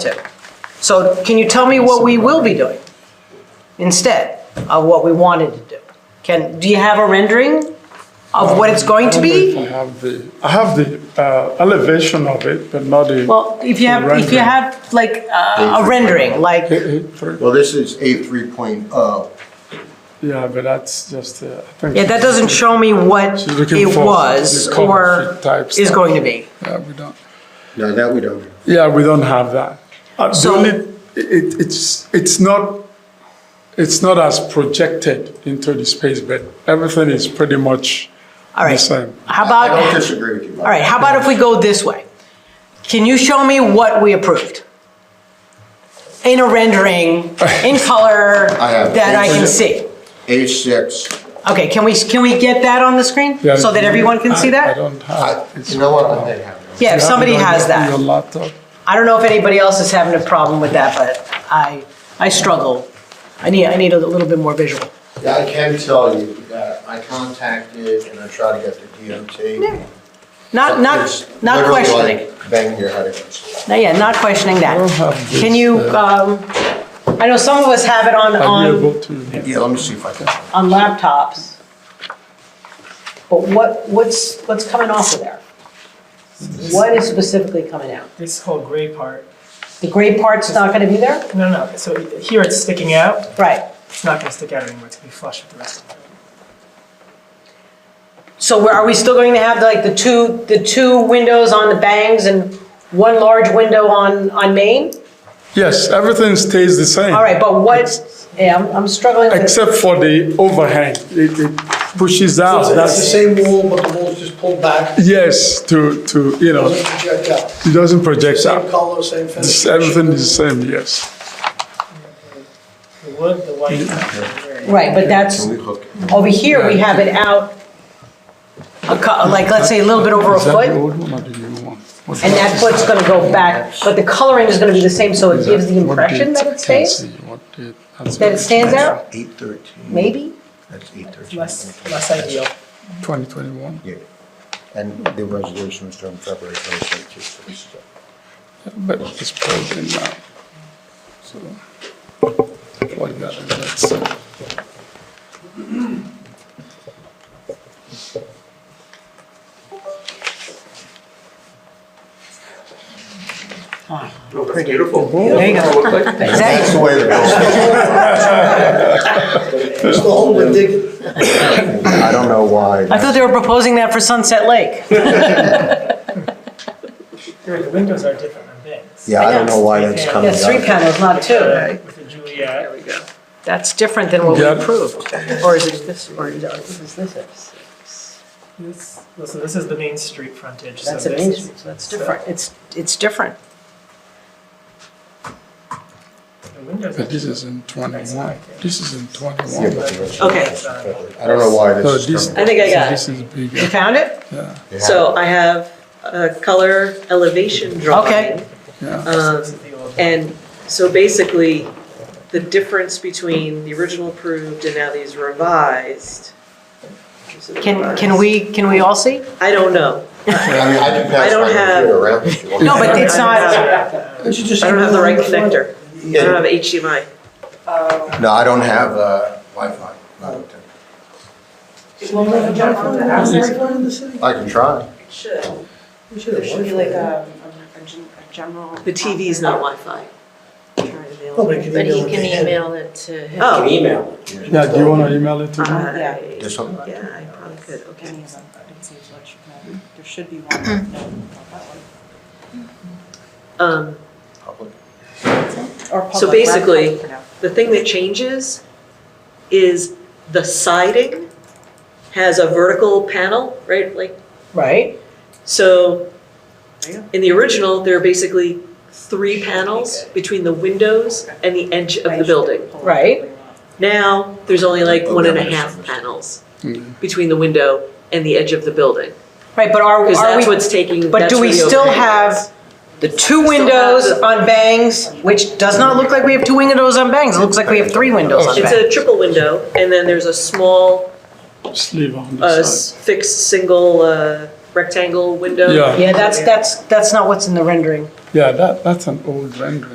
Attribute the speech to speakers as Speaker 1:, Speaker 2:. Speaker 1: to. So can you tell me what we will be doing instead of what we wanted to do? Can, do you have a rendering of what it's going to be?
Speaker 2: I have the, I have the uh, elevation of it, but not the.
Speaker 1: Well, if you have, if you
Speaker 2: Rendering.
Speaker 1: have like uh, a
Speaker 3: Basically.
Speaker 1: rendering, like,
Speaker 2: Eh, eh, for-
Speaker 3: Well, this is A three point oh.
Speaker 2: Yeah, but that's just, uh, I think.
Speaker 1: yeah, that doesn't show me what
Speaker 2: She's looking
Speaker 1: it
Speaker 2: for
Speaker 1: was
Speaker 2: the cover
Speaker 1: or
Speaker 2: sheet type
Speaker 1: is
Speaker 2: stuff.
Speaker 1: going to be.
Speaker 2: Yeah, we don't,
Speaker 3: No, that we don't.
Speaker 2: yeah, we don't have that. Uh, the
Speaker 1: So-
Speaker 2: only, it, it's, it's not, it's not as projected into the space, but everything is pretty much
Speaker 1: All
Speaker 2: the
Speaker 1: right.
Speaker 2: same.
Speaker 1: How
Speaker 3: I don't
Speaker 1: about,
Speaker 3: disagree with you.
Speaker 1: all right, how about if we go this way? Can you show me what we approved? In a rendering, in color,
Speaker 3: I have it.
Speaker 1: that I can see.
Speaker 3: A six,
Speaker 1: Okay, can we, can we get that on the screen?
Speaker 2: Yeah,
Speaker 1: So that everyone can see
Speaker 2: I- I
Speaker 1: that?
Speaker 2: don't have. it's-
Speaker 3: you know what, I may have. it.
Speaker 1: Yeah,
Speaker 2: you
Speaker 1: if
Speaker 2: have it
Speaker 1: somebody
Speaker 2: on
Speaker 1: has
Speaker 2: your- Your
Speaker 1: that.
Speaker 2: laptop.
Speaker 1: I don't know if anybody else is having a problem with that, but I, I struggle. I need, I need a little bit more visual.
Speaker 3: Yeah, I can tell you that I contacted and I tried to get the DOT.
Speaker 1: Not,
Speaker 3: It's
Speaker 1: not, not
Speaker 3: literally
Speaker 1: questioning.
Speaker 3: like Banging your head against. the wall.
Speaker 1: No, yeah, not questioning that.
Speaker 2: don't have this,
Speaker 1: Can you,
Speaker 2: uh,
Speaker 1: um, I know some of us have it on,
Speaker 2: Are you
Speaker 1: on
Speaker 2: able to?
Speaker 3: Yeah, let me see if I can.
Speaker 1: on laptops. But what, what's, what's coming off of there? What is specifically coming out?
Speaker 4: This whole gray part,
Speaker 1: The gray part's not gonna be there?
Speaker 4: no, no, so here it's sticking out,
Speaker 1: Right.
Speaker 4: it's not gonna stick out anymore, it's gonna be flush with the rest of it.
Speaker 1: So we're- are we still going to have like the two, the two windows on the bangs and one large window on, on Main?
Speaker 2: Yes, everything stays the same.
Speaker 1: All right, but what, yeah, I'm- I'm struggling with,
Speaker 2: Except for the overhang, it, it pushes
Speaker 5: It's
Speaker 2: out,
Speaker 5: the
Speaker 2: that's,
Speaker 5: same wall, but the wall's just pulled back,
Speaker 2: yes, to, to, you know,
Speaker 5: doesn't project out.
Speaker 2: it doesn't project
Speaker 5: Same
Speaker 2: out.
Speaker 5: color, same
Speaker 2: It's-
Speaker 5: finish.
Speaker 2: Everything is the same, yes.
Speaker 4: The wood, the white,
Speaker 1: Mm-hmm.
Speaker 4: and the gray.
Speaker 1: right, but that's,
Speaker 3: Can we hook it?
Speaker 1: over here, we have it out a cou- like, let's say a little bit over a
Speaker 2: Is that the
Speaker 1: foot,
Speaker 2: old one or the new one? What-
Speaker 1: and that foot's gonna go back, but the coloring is gonna be the same, so it
Speaker 2: is
Speaker 1: gives the
Speaker 2: that- what
Speaker 1: impression
Speaker 2: date?
Speaker 1: that
Speaker 2: Can't
Speaker 1: it stays,
Speaker 2: see what date. That's
Speaker 1: that it stands out,
Speaker 3: Eight thirteen.
Speaker 1: maybe?
Speaker 3: That's eight thirteen.
Speaker 4: Less, less ideal.
Speaker 2: 2021.
Speaker 3: Yeah. And the resolution was from February twenty twenty two.
Speaker 2: But it's frozen now. So, what about that?
Speaker 1: There you go. Is
Speaker 3: That's
Speaker 1: that-
Speaker 3: the way the bill's.
Speaker 5: Just the hole we're digging.
Speaker 3: I don't know why.
Speaker 1: I thought they were proposing that for Sunset Lake.
Speaker 4: The windows are different on bangs.
Speaker 3: Yeah, I don't know why that's coming
Speaker 1: Yeah,
Speaker 3: up.
Speaker 1: three panels, not two.
Speaker 4: With the Juliet. There we go.
Speaker 1: That's different than what we
Speaker 2: Yeah.
Speaker 1: approved. Or is it this, or is this it?
Speaker 4: This, so this is the main street frontage, so
Speaker 1: That's
Speaker 4: this.
Speaker 1: an Main
Speaker 4: is-
Speaker 1: Street, so that's different. It's, it's different.
Speaker 4: The windows.
Speaker 2: But this is in 21, this is in
Speaker 3: Yeah,
Speaker 2: 21.
Speaker 3: but the resolution
Speaker 1: Okay.
Speaker 3: was from February. I don't know why
Speaker 2: So
Speaker 3: this is
Speaker 2: this,
Speaker 3: coming.
Speaker 1: I think I got it.
Speaker 2: this is
Speaker 1: You
Speaker 2: bigger,
Speaker 1: found it?
Speaker 2: yeah.
Speaker 3: Yeah.
Speaker 6: So I have a color elevation drawing.
Speaker 2: Yeah.
Speaker 6: Um,
Speaker 4: This is the old-
Speaker 6: And so basically, the difference between the original approved and now these revised. is it
Speaker 1: Can, can
Speaker 6: revised?
Speaker 1: we, can we all see?
Speaker 6: I don't know.
Speaker 3: I mean, I can
Speaker 6: I
Speaker 3: pass
Speaker 6: don't
Speaker 3: my
Speaker 6: have-
Speaker 3: computer around if you want.
Speaker 1: No, but it's not,
Speaker 4: Uh,
Speaker 6: I don't have the right connector. I don't have HDMI.
Speaker 7: Oh,
Speaker 3: No, I don't have uh, Wi-Fi. not hooked up. I can try.
Speaker 7: There should be like um, a, a- a gen- a general.
Speaker 6: The TV's not Wi-Fi.
Speaker 5: Nobody can
Speaker 8: But he
Speaker 5: email
Speaker 8: can
Speaker 5: it.
Speaker 8: email it to him.
Speaker 6: Oh.
Speaker 9: email.
Speaker 2: Yeah, do you want to email it to me?
Speaker 6: I-
Speaker 7: Yeah.
Speaker 3: There's something.
Speaker 6: Yeah, I probably could, okay.
Speaker 7: Any of them, it seems like you can, there should be one, no, not
Speaker 6: Mm-hmm.
Speaker 7: that one.
Speaker 6: Um,
Speaker 3: Public.
Speaker 7: Or public.
Speaker 6: So basically-
Speaker 7: for now.
Speaker 6: The thing that changes is the siding has a vertical panel, right? Like
Speaker 1: right?
Speaker 6: So, in the original, there are basically three panels between the windows and the edge of the building.
Speaker 1: Right.
Speaker 6: Now, there's only like
Speaker 1: Oh,
Speaker 6: one and a half panels between the window and the edge of the building.
Speaker 1: Right, but are,
Speaker 6: Because
Speaker 1: are
Speaker 6: that's
Speaker 1: we,
Speaker 6: what's taking,
Speaker 1: but
Speaker 6: that's
Speaker 1: do
Speaker 6: where
Speaker 1: we
Speaker 6: the
Speaker 1: still
Speaker 6: overhang
Speaker 1: have
Speaker 6: is.
Speaker 1: the two
Speaker 6: have
Speaker 1: windows
Speaker 6: the-
Speaker 1: on bangs, which does not look like we have two windows on bangs, it looks like we have three windows on
Speaker 6: It's
Speaker 1: bangs.
Speaker 6: a triple window, and then there's a small,
Speaker 2: Just leave on
Speaker 6: uh,
Speaker 2: the
Speaker 6: s-
Speaker 2: side.
Speaker 6: fixed, single uh, rectangle window.
Speaker 2: Yeah.
Speaker 1: Yeah, that's, that's, that's not what's in the rendering.
Speaker 2: Yeah, that, that's an old rendering.